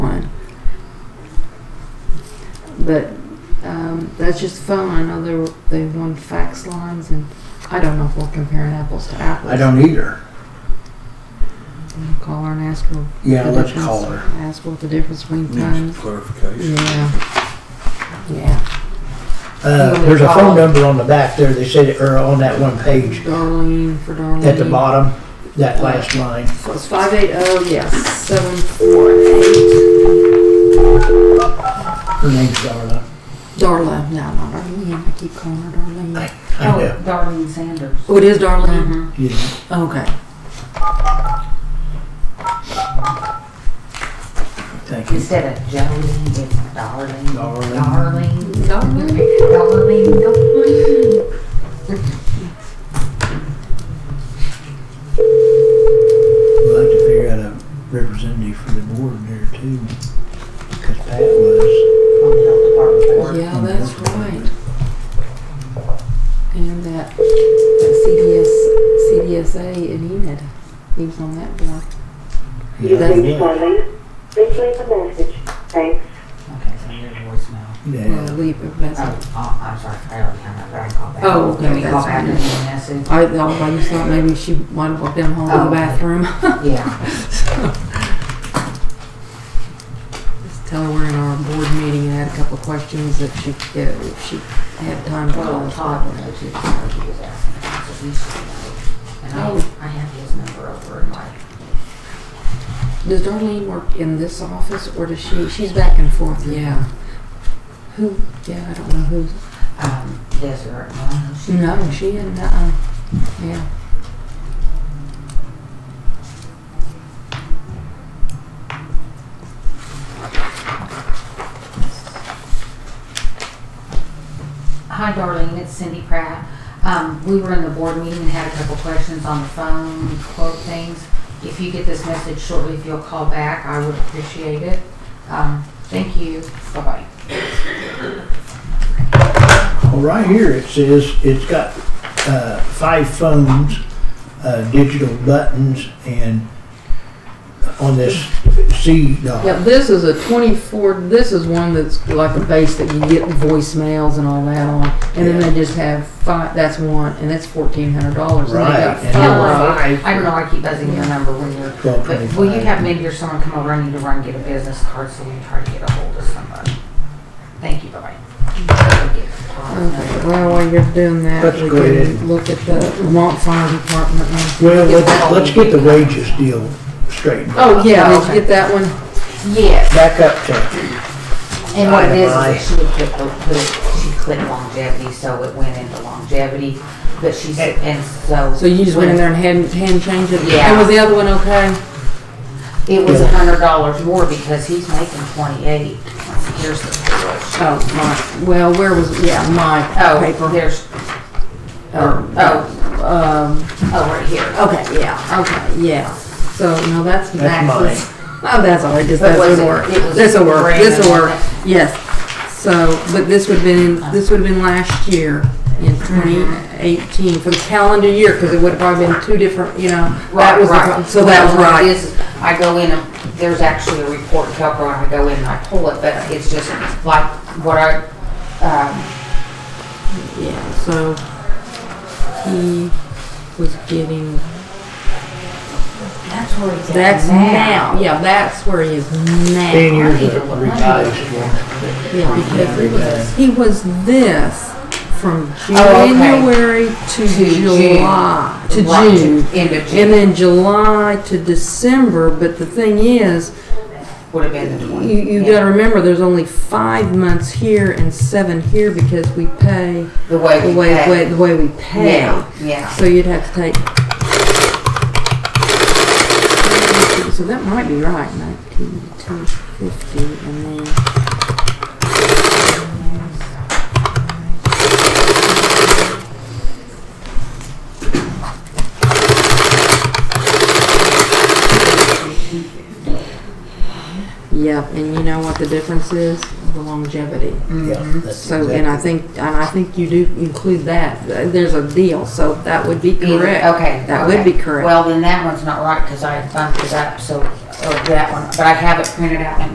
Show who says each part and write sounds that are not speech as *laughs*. Speaker 1: but um, that's just phone. I know they were, they won fax lines, and I don't know if we're comparing apples to apples.
Speaker 2: I don't either.
Speaker 1: We'll Call her and ask her.
Speaker 2: Yeah,
Speaker 1: the
Speaker 2: let's
Speaker 1: difference-
Speaker 2: call her.
Speaker 1: Ask what the difference between
Speaker 3: Needs
Speaker 1: times.
Speaker 3: clarification.
Speaker 1: Yeah. Yeah.
Speaker 2: Uh, there's a phone number on the back there, they said, or on that one page,
Speaker 1: Darlene for Darlene.
Speaker 2: at the bottom, that last line.
Speaker 1: So it's five eight oh yes seven four eight.
Speaker 2: Her name's Darla.
Speaker 1: Darla. No, not Darlene. I keep calling her Darlene.
Speaker 2: I,
Speaker 4: Oh.
Speaker 2: I know.
Speaker 4: Darlene Sanders.
Speaker 1: Oh, it is Darlene.
Speaker 2: Yeah.
Speaker 1: Okay.
Speaker 2: Thank you.
Speaker 4: Instead of Jolene, it's Darlene.
Speaker 2: Darlene.
Speaker 4: Darlene.
Speaker 1: Darlene.
Speaker 4: Darlene. Darlene.
Speaker 2: We'll have to figure out a representative for the board there too, because Pat was.
Speaker 4: From the health department board.
Speaker 1: Yeah, that's right. And that, that CDS, CDSA in Enid, he was E on that board.
Speaker 2: Yeah,
Speaker 1: That's
Speaker 2: yeah.
Speaker 5: Please leave a message. Thanks.
Speaker 4: Okay, so your voicemail.
Speaker 1: Well,
Speaker 2: Yeah,
Speaker 1: leave it, that's,
Speaker 4: Oh, oh, I'm sorry, I already hung up, but I can call back.
Speaker 1: Oh, okay,
Speaker 4: Can we call
Speaker 1: that's
Speaker 4: back
Speaker 1: fine.
Speaker 4: and leave a
Speaker 1: *laughs*
Speaker 4: message?
Speaker 1: I, I just thought maybe she might have walked down the hall to
Speaker 4: Oh.
Speaker 1: the bathroom.
Speaker 4: Yeah.
Speaker 1: Just tell her we're in our board meeting and had a couple of questions that she, yeah, if she had time to call
Speaker 4: Well,
Speaker 1: us.
Speaker 4: Todd will know too, because he was asking, about it, so he should know. And
Speaker 1: Oh.
Speaker 4: I, I have his number over in my,
Speaker 1: Does Darlene work in this office or does she, she's back and forth, yeah. Who, yeah, I don't know who's.
Speaker 4: um, desert. Oh, she-
Speaker 1: No, she didn't. Uh, yeah.
Speaker 4: Hi, Darlene, it's Cindy Pratt. Um, we were in the board meeting and had a couple questions on the phone, quote things. If you get this message shortly, if you'll call back, I would appreciate it. Um, thank you, bye-bye.
Speaker 2: well, right here it says, it's got, uh, five phones, uh, digital buttons and on this C
Speaker 1: Yeah,
Speaker 2: dot.
Speaker 1: this is a 24, this is one that's like a base that you get voicemails and all that on. And then they just have five, that's one, and that's $1,400.
Speaker 2: Right.
Speaker 1: And they
Speaker 2: and
Speaker 1: got five.
Speaker 2: there were
Speaker 4: Oh,
Speaker 2: five
Speaker 4: I don't know, I keep buzzing your number when you're,
Speaker 2: Twelve
Speaker 4: but will you
Speaker 2: twenty-five.
Speaker 4: have maybe or someone come over, I need to run, get a business card, so we can try to get a hold of somebody. Thank you, bye-bye.
Speaker 1: Okay, well, while you're doing that,
Speaker 2: Let's
Speaker 1: we
Speaker 2: go
Speaker 1: can
Speaker 2: ahead.
Speaker 1: look at the Vermont Fire Department. and-
Speaker 2: Well, let's, let's get the wages deal straightened.
Speaker 1: Oh, yeah, did
Speaker 4: Okay.
Speaker 1: you get that one?
Speaker 4: Yes,
Speaker 2: Back up to,
Speaker 4: And what it is, is
Speaker 2: Aye.
Speaker 4: that she would click, the- put it- she clicked longevity, so it went into longevity, but she's, and so.
Speaker 1: So you just went in there and hand, hand changed it?
Speaker 4: Yeah.
Speaker 1: And was the other one okay?
Speaker 4: It was a hundred dollars more because he's making twenty-eight. Here's the payroll.
Speaker 1: Oh, my, well, where was, it? yeah, my
Speaker 4: Oh,
Speaker 1: paper.
Speaker 4: there's,
Speaker 1: Oh,
Speaker 4: oh,
Speaker 1: Um,
Speaker 4: oh, right here.
Speaker 1: Okay, yeah, okay, yeah. So, no, that's
Speaker 2: That's
Speaker 1: Max's. Oh, that's all right, just,
Speaker 4: But
Speaker 1: that's
Speaker 4: was
Speaker 1: will
Speaker 4: it-
Speaker 1: work.
Speaker 4: it was
Speaker 1: This'll work,
Speaker 4: brand
Speaker 1: this'll
Speaker 4: new,
Speaker 1: work,
Speaker 4: okay.
Speaker 1: yes. So, but this would've been, this would've been last year in
Speaker 4: Uh-huh.
Speaker 1: twenty eighteen, for the calendar year, cause it would've probably been two different, you know. That
Speaker 4: Right,
Speaker 1: was the
Speaker 4: right.
Speaker 1: pro- So that was
Speaker 4: Well, what it
Speaker 1: right.
Speaker 4: is, is I go in, and there's actually a report in Kelco, and I go in and I pull it, but it's just like what I, um,
Speaker 1: Yeah, so he was getting,
Speaker 4: that's where it's at
Speaker 1: that's now, yeah, that's where he is now.
Speaker 2: ten years of revised one.
Speaker 1: Yeah, because he was, he was this from
Speaker 4: Oh,
Speaker 1: January
Speaker 4: okay.
Speaker 1: to July, to
Speaker 4: Right,
Speaker 1: June.
Speaker 4: End of
Speaker 1: And
Speaker 4: June
Speaker 1: then July to December, but the thing is,
Speaker 4: would have been the
Speaker 1: you,
Speaker 4: twenty.
Speaker 1: you
Speaker 4: yeah.
Speaker 1: gotta remember, there's only five months here and seven here because we pay
Speaker 4: The way
Speaker 1: the
Speaker 4: we
Speaker 1: way,
Speaker 4: pay.
Speaker 1: way, the way we pay.
Speaker 4: Yeah, yeah.
Speaker 1: So you'd have to take. So that might be right, nineteen, two fifty, and then. Yep, and you know what the difference is? The longevity.
Speaker 2: Yeah, that's
Speaker 1: So, and I
Speaker 2: exactly-
Speaker 1: think, and I think you do include that, there's a deal, so that would be
Speaker 4: Either-
Speaker 1: correct.
Speaker 4: Okay.
Speaker 1: That would
Speaker 4: okay.
Speaker 1: be correct.
Speaker 4: Well, then that one's not right because I bumped it up, so, or that one, but I have it printed out and